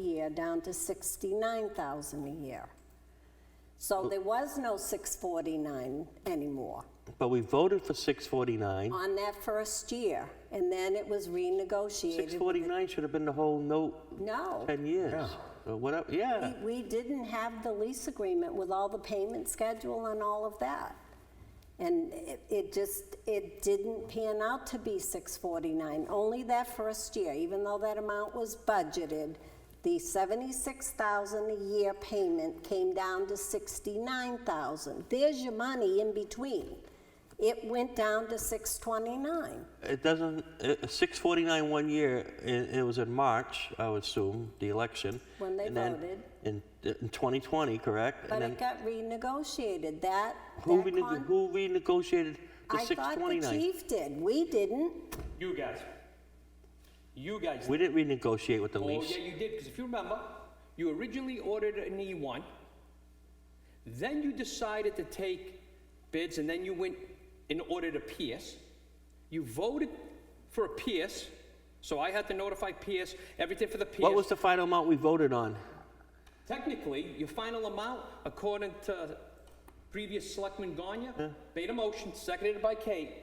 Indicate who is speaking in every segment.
Speaker 1: year down to 69,000 a year. So there was no 649 anymore
Speaker 2: But we voted for 649.
Speaker 1: on that first year, and then it was renegotiated.
Speaker 2: 649 should have been the whole note
Speaker 1: No,
Speaker 2: 10 years. Or whatever, yeah.
Speaker 1: we- we didn't have the lease agreement with all the payment schedule and all of that. And it- it just, it didn't pan out to be 649, only that first year, even though that amount was budgeted. The 76,000 a year payment came down to 69,000. There's your money in between. It went down to 629.
Speaker 2: It doesn't, uh, 649 one year, it, it was in March, I would assume, the election.
Speaker 1: When they
Speaker 2: and then
Speaker 1: voted.
Speaker 2: In, in 2020, correct?
Speaker 1: But
Speaker 2: And then
Speaker 1: it got renegotiated, that.
Speaker 2: who
Speaker 1: that
Speaker 2: rene-
Speaker 1: con-
Speaker 2: Who renegotiated the
Speaker 1: I thought the
Speaker 2: 629?
Speaker 1: chief did, we didn't.
Speaker 3: You guys. You guys.
Speaker 2: We didn't renegotiate with the
Speaker 3: oh,
Speaker 2: lease.
Speaker 3: yeah, you did, because if you remember, you originally ordered an E1. Then you decided to take bids, and then you went and ordered a PS. You voted for a PS, so I had to notify PS, everything for the PS.
Speaker 2: What was the final amount we voted on?
Speaker 3: Technically, your final amount, according to previous selectman Gonya, made a motion, seconded by Kate,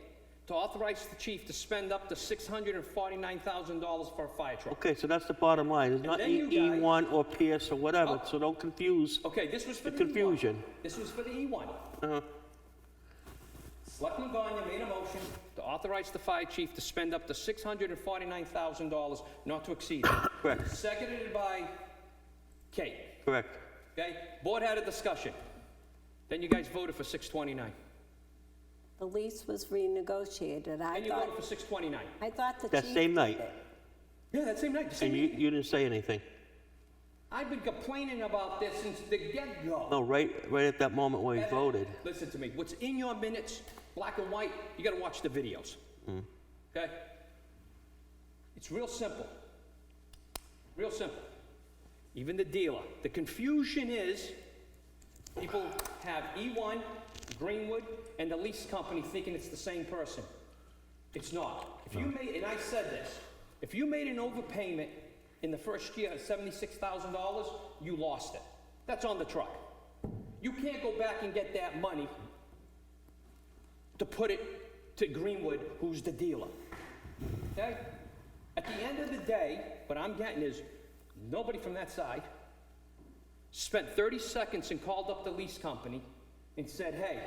Speaker 3: to authorize the chief to spend up to $649,000 for a fire truck.
Speaker 2: Okay, so that's the bottom line. It's not
Speaker 3: then you
Speaker 2: E-
Speaker 3: guys- Oh.
Speaker 2: E1 or PS or whatever, so don't confuse.
Speaker 3: Okay, this was for
Speaker 2: The
Speaker 3: the E1.
Speaker 2: confusion.
Speaker 3: This was for the E1.
Speaker 2: Uh-huh.
Speaker 3: Selectman Gonya made a motion to authorize the fire chief to spend up to $649,000, not to exceed. it.
Speaker 2: Correct.
Speaker 3: Seconded by Kate,
Speaker 2: Correct.
Speaker 3: okay? Board had a discussion. Then you guys voted for 629.
Speaker 1: The lease was renegotiated, I
Speaker 3: And you voted
Speaker 1: thought,
Speaker 3: for 629.
Speaker 1: I thought the chief.
Speaker 2: That same
Speaker 1: did
Speaker 2: night.
Speaker 1: it.
Speaker 3: Yeah, that same night, the same
Speaker 2: And you,
Speaker 3: night.
Speaker 2: you didn't say anything.
Speaker 3: I've been complaining about this since the get-go.
Speaker 2: No, Oh, right, right at that moment when we
Speaker 3: Evan,
Speaker 2: voted.
Speaker 3: Listen to me, what's in your minutes, black and white, you gotta watch the videos. Okay? It's real simple. Real simple. Even the dealer. The confusion is, people have E1, Greenwood, and the lease company thinking it's the same person. It's not. If you made, and I said this, if you made an overpayment in the first year of seventy-six thousand dollars, you lost it. That's on the truck. You can't go back and get that money to put it to Greenwood, who's the dealer. Okay? At the end of the day, what I'm getting is, nobody from that side spent thirty seconds and called up the lease company and said, hey,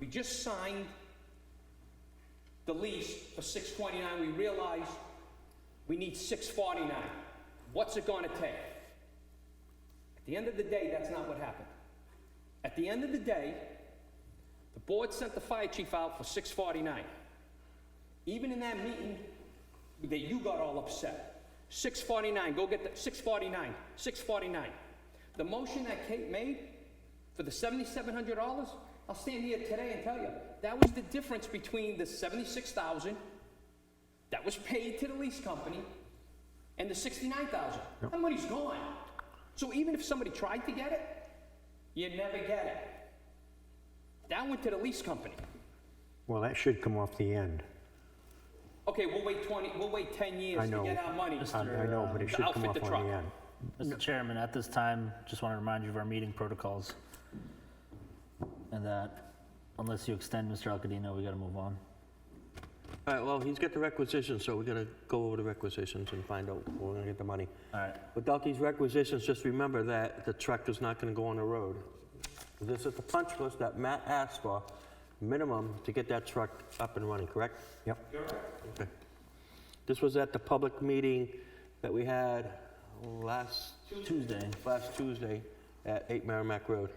Speaker 3: we just signed the lease for 629, we realize we need 649. What's it gonna take? At the end of the day, that's not what happened. At the end of the day, the board sent the fire chief out for 649. Even in that meeting that you got all upset, 649, go get the, 649, 649. The motion that Kate made for the $7,700, I'll stand here today and tell you, that was the difference between the 76,000 that was paid to the lease company and the 69,000. That money's gone. So even if somebody tried to get it, you never get it. That went to the lease company.
Speaker 4: Well, that should come off the end.
Speaker 3: Okay, we'll wait 20, we'll wait 10
Speaker 4: I
Speaker 3: years to
Speaker 4: know.
Speaker 3: get our money.
Speaker 4: I I know, but it
Speaker 3: To
Speaker 4: should come
Speaker 3: outfit
Speaker 4: off
Speaker 3: the
Speaker 4: on
Speaker 3: truck.
Speaker 4: the end.
Speaker 5: Mr. Chairman, at this time, just want to remind you of our meeting protocols. And that unless you extend, Mr. Alcadino, we got to move on.
Speaker 2: All right, well, he's got the requisitions, so we're gonna go over the requisitions and find out where we're gonna get the money.
Speaker 5: All right.
Speaker 2: Without these requisitions, just remember that the truck is not gonna go on the road. This is the punch list that Matt asked for, minimum, to get that truck up and running, correct?
Speaker 4: Yep.
Speaker 2: Okay. This was at the public meeting that we had last,
Speaker 5: Tuesday.
Speaker 2: last Tuesday at 8 Merrimack Road.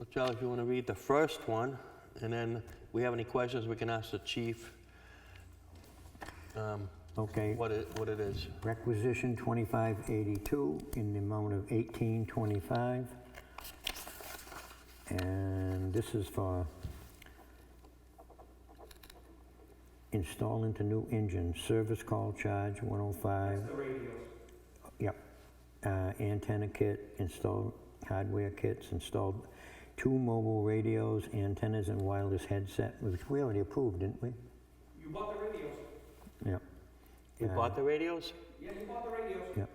Speaker 2: Well, Charlie, if you want to read the first one, and then if we have any questions, we can ask the chief um,
Speaker 4: Okay.
Speaker 2: what it, what it is.
Speaker 4: Requisition 2582 in the amount of 1825. And this is for install into new engine, service call charge 105. Yep. Uh, Antenna kit, install hardware kits, installed two mobile radios, antennas and wireless headset, which we already approved, didn't we?
Speaker 3: You bought the radios.
Speaker 4: Yep.
Speaker 6: You bought the radios?
Speaker 2: Yeah, you bought the radios.
Speaker 4: Yep.